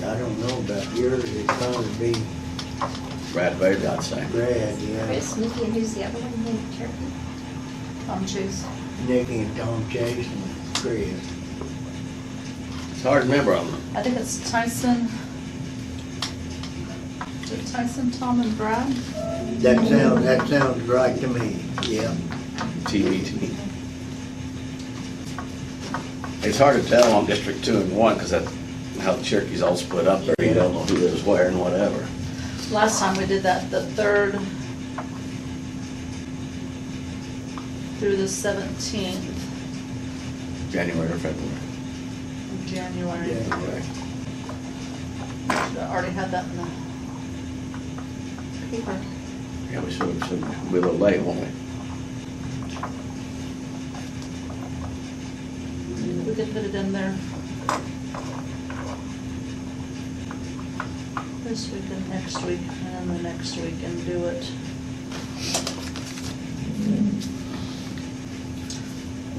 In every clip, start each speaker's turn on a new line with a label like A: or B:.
A: I don't know about yours, it'd probably be
B: Brad Bailey, I'd say.
A: Brad, yeah.
C: Chris, Nikki, and who's the other one, Nick Turkey?
D: Tom Chase.
A: Nicky and Tom Chase and Chris.
B: It's hard to remember on them.
D: I think it's Tyson. Is it Tyson, Tom, and Brad?
A: That sounds, that sounds right to me, yeah.
B: TBT. It's hard to tell on District Two and One, because that's how the Cherokee's all split up there. You don't know who lives where and whatever.
D: Last time we did that, the third through the seventeenth
B: January or February.
D: of January.
A: Yeah.
D: I already had that in the paper.
B: Yeah, we should, should be a little late, won't we?
D: We could put it in there. This week and next week, and then the next week and do it.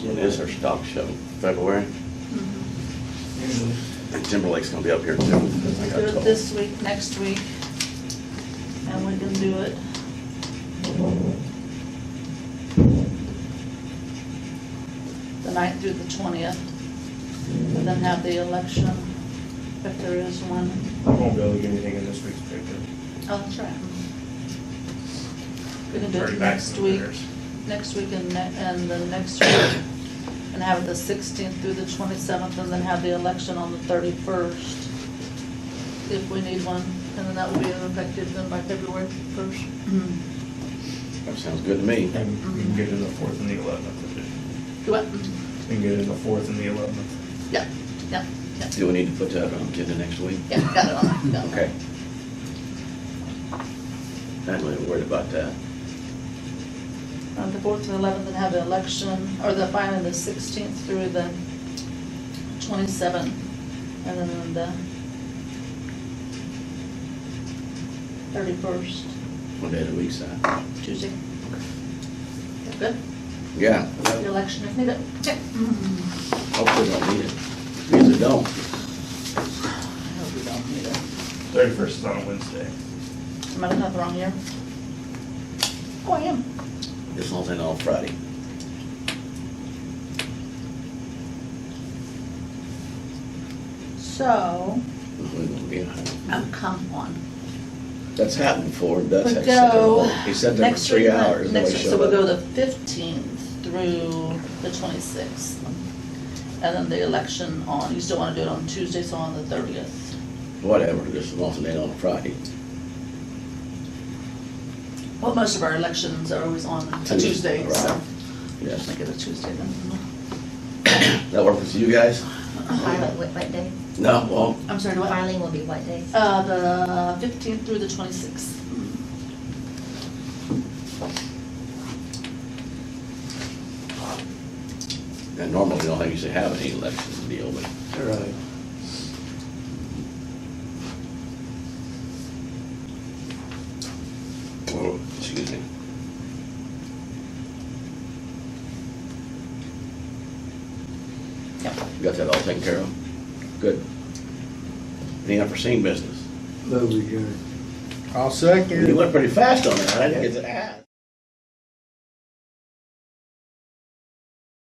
B: It is our stock show, February. And Timberlake's gonna be up here too. I
D: Do
B: got
D: it
B: told.
D: this week, next week, and we can do it. The ninth through the twentieth, and then have the election, if there is one.
E: I won't be able to get anything in this week's paper.
D: Oh, that's right. We can do
E: Already
D: it
E: back
D: next
E: in
D: week,
E: theirs.
D: next week and ne- and the next week, and have it the sixteenth through the twenty-seventh, and then have the election on the thirty-first, if we need one, and then that will be effective then by February first.
B: That sounds good to me.
E: And we can get it in the fourth and the eleventh.
D: Do what?
E: We can get it in the fourth and the eleventh.
D: Yeah, yeah, yeah,
B: Do we need to put that on agenda next week?
D: yeah, got it on, got it on.
B: Okay. Not really worried about that.
D: On the fourth and eleventh, and have the election, or the final, the sixteenth through the twenty-seventh, and then on the thirty-first,
B: What day of the week's that?
D: Tuesday. Good,
B: Yeah,
D: the election if needed. Mm-hmm. Okay.
B: hopefully don't need it. Usually don't.
D: I hope we don't need it.
E: Thirty-first is on a Wednesday.
D: Am I looking at the wrong year? Oh, I am.
B: This one's in on Friday.
D: So,
B: We won't be in.
D: oh, come on.
B: That's happened before. That's
D: We
B: had such a
D: go.
B: long, he sat there for
D: next
B: three
D: week, uh,
B: hours.
D: Next
B: nobody
D: week, so
B: showed
D: we'll go
B: up.
D: the fifteenth through the twenty-sixth. And then the election on, you still wanna do it on Tuesday, so on the thirtieth.
B: Whatever, this one's in on Friday.
D: Well, most of our elections are always on a
B: Tuesday,
D: Tuesday, so
B: right.
D: we'll just
B: Yes.
D: make it a Tuesday then.
B: That work with you guys?
C: Filing, what, what day?
B: No, well,
D: I'm sorry, do Uh-huh. what?
C: Filing will be what day?
D: Uh, the fifteenth through the twenty-sixth.
B: and normally we don't usually have any election deal, but
A: All right.
B: Oh, excuse me.
D: Yep.
B: You Got that all taken care of? Good. Any unforeseen business?
A: Move adjourned.
F: I'll second.
B: You went pretty fast on that, I didn't get to ask.